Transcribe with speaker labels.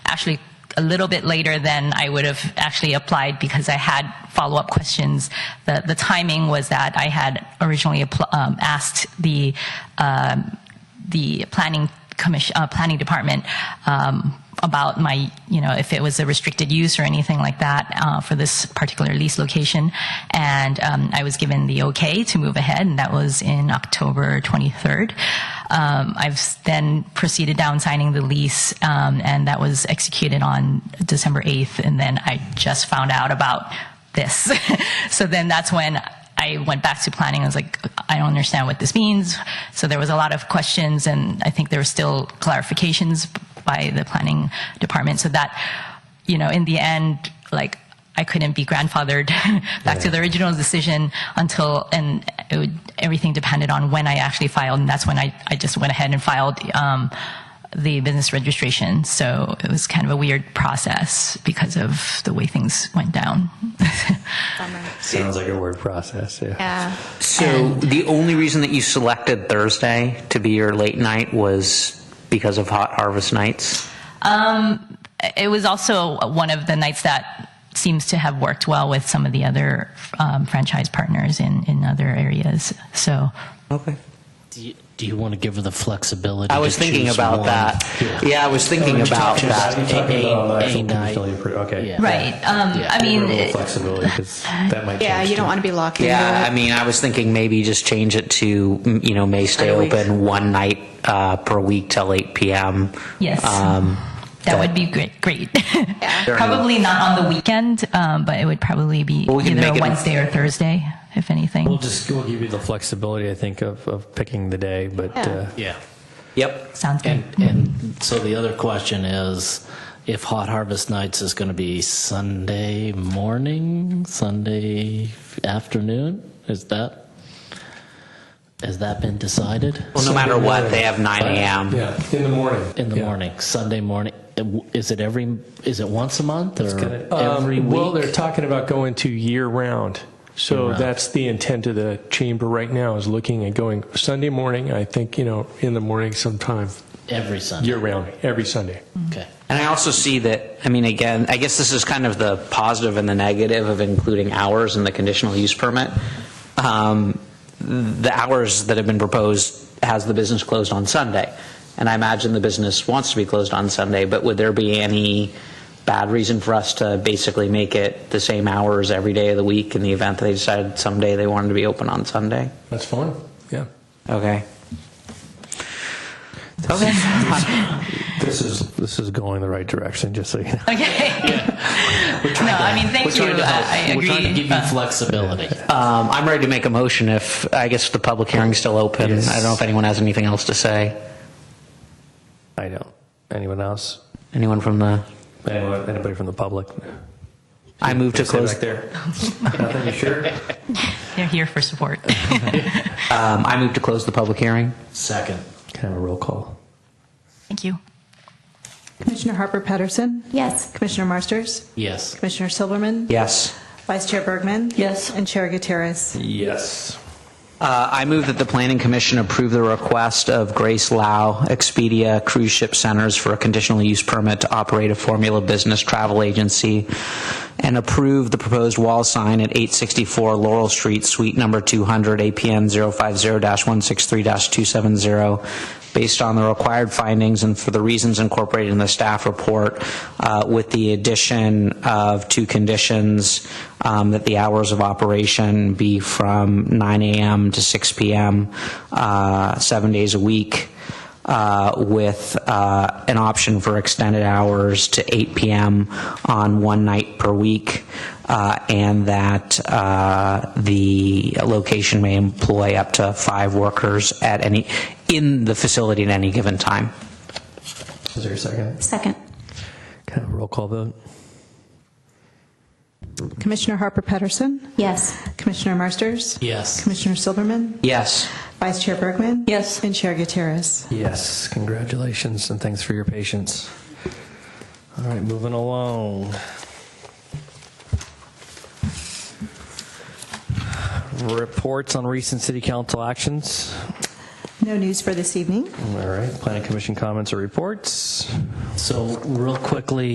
Speaker 1: actually a little bit later than I would have actually applied because I had follow up questions. The, the timing was that I had originally appl- um, asked the um the planning commission uh, planning department um, about my you know if it was a restricted use or anything like that uh, for this particular lease location and um, i was given the okay to move ahead and that was in october 23rd um, i've s- then proceeded down signing the lease um, and that was executed on december 8th and then i just found out about this so then that's when I went back to planning. I was like, I don't understand what this means. So there was a lot of questions, and I think there were still clarifications by the planning department. So that, you know, in the end, like I couldn't be grandfathered back to the original decision until, and it would, everything depended on when I actually filed, and that's when I, I just went ahead and filed. Um, the business registration. So it was kind of a weird process because of the way things went down.
Speaker 2: Bummer.
Speaker 3: Sounds like a word process. Yeah.
Speaker 2: Yeah.
Speaker 4: So the only reason that you selected Thursday to be your late night was because of hot harvest nights?
Speaker 1: it was also one of the nights that seems to have worked well with some of the other um, franchise partners in, in other areas. So
Speaker 4: Okay.
Speaker 5: Do you, do you want to give her the flexibility?
Speaker 4: I was
Speaker 5: to
Speaker 4: thinking
Speaker 5: choose
Speaker 4: about
Speaker 5: one?
Speaker 4: that. Yeah, I was thinking about that.
Speaker 3: You're talking about on the
Speaker 5: A-
Speaker 3: actual
Speaker 5: a night.
Speaker 3: facility appro- Okay.
Speaker 5: Yeah.
Speaker 1: right, um, I mean,
Speaker 3: A little
Speaker 1: it-
Speaker 3: flexibility because that might.
Speaker 2: Yeah,
Speaker 3: change
Speaker 2: you don't
Speaker 3: too.
Speaker 2: want to be locked into
Speaker 4: Yeah, I
Speaker 2: it.
Speaker 4: mean, I was thinking maybe just change it to, mm, you know, may stay open one night uh, per week till 8 p.m.
Speaker 1: Yes.
Speaker 4: Um,
Speaker 1: that would be great. Great.
Speaker 4: Fair
Speaker 1: probably not on the weekend, um, but it would probably be
Speaker 4: Well, we can
Speaker 1: either a
Speaker 4: make it-
Speaker 1: Wednesday or Thursday, if anything.
Speaker 3: We'll just we'll give you the flexibility, I think, of, of picking the day, but
Speaker 2: Yeah.
Speaker 3: uh,
Speaker 5: Yeah.
Speaker 4: Yep.
Speaker 1: Sounds good.
Speaker 5: And and so the other question is, if Hot Harvest Nights is going to be Sunday morning, Sunday afternoon, is that has that been decided?
Speaker 4: Well, no matter what, they have 9 a.m.
Speaker 3: yeah, in the morning.
Speaker 5: In the
Speaker 3: Yeah.
Speaker 5: morning, Sunday morning. Is it every? Is it once a month or
Speaker 6: Um,
Speaker 5: every week?
Speaker 6: Well, they're talking about going to year round. So that's the intent of the chamber right now is looking at going Sunday morning, I think, you know, in the morning sometime,
Speaker 5: every Sunday.
Speaker 6: year round, every Sunday.
Speaker 5: okay.
Speaker 4: And I also see that, I mean, again, I guess this is kind of the positive and the negative of including hours in the conditional use permit. Um, The hours that have been proposed has the business closed on Sunday. And I imagine the business wants to be closed on Sunday, but would there be any bad reason for us to basically make it the same hours every day of the week in the event that they decided someday they wanted to be open on Sunday?
Speaker 6: That's fine. Yeah.
Speaker 4: Okay. Okay.
Speaker 3: This is this is going the right direction. Just so you know.
Speaker 1: okay. no, I mean, thank
Speaker 5: We're
Speaker 1: you.
Speaker 5: trying to help.
Speaker 1: I, I agree.
Speaker 5: We're trying to give you
Speaker 1: Uh,
Speaker 5: flexibility.
Speaker 4: Um, I'm ready to make a motion if, I guess the public hearing's still open.
Speaker 3: Yes.
Speaker 4: I don't know if anyone has anything else to say.
Speaker 3: I don't. Anyone else?
Speaker 4: Anyone from the,
Speaker 3: Anyone, anybody from the public?
Speaker 4: I move to
Speaker 3: Stay
Speaker 4: close,
Speaker 3: back there. Nothing. You sure?
Speaker 1: they're here for support.
Speaker 4: um, I move to close the public hearing.
Speaker 5: Second.
Speaker 3: Can I have a roll call?
Speaker 1: thank you.
Speaker 2: Commissioner Harper Pedersen? Yes. Commissioner Marsters?
Speaker 5: Yes.
Speaker 2: Commissioner Silverman?
Speaker 4: Yes.
Speaker 2: Vice Chair Bergman? Yes. And Chair Gutierrez?
Speaker 3: Yes.
Speaker 4: Uh, I move that the planning commission approve the request of Grace Lau, Expedia Cruise Ship Centers for a conditional use permit to operate a Formula Business Travel Agency and approve the proposed wall sign at 864 Laurel Street, Suite Number 200, APN 050-163-270, based on the required findings and for the reasons incorporated in the staff report, uh, with the addition of two conditions, um, that the hours of operation be from 9 AM to 6 PM, uh, seven days a week, uh, with uh, an option for extended hours to 8 PM on one night per week, uh, and that uh, the location may employ up to five workers at any, in the facility at any given time.
Speaker 3: Is there a second?
Speaker 7: Second.
Speaker 3: Can I have a roll call vote?
Speaker 2: Commissioner Harper Pedersen?
Speaker 7: Yes.
Speaker 2: Commissioner Marsters?
Speaker 5: Yes.
Speaker 2: Commissioner Silverman?
Speaker 4: Yes.
Speaker 2: Vice Chair Bergman?
Speaker 7: Yes.
Speaker 2: And Chair Gutierrez?
Speaker 3: Yes. Congratulations and thanks for your patience. All right, moving along. Reports on recent city council actions.
Speaker 2: No news for this evening.
Speaker 3: All right, planning commission comments or reports?
Speaker 5: So real quickly,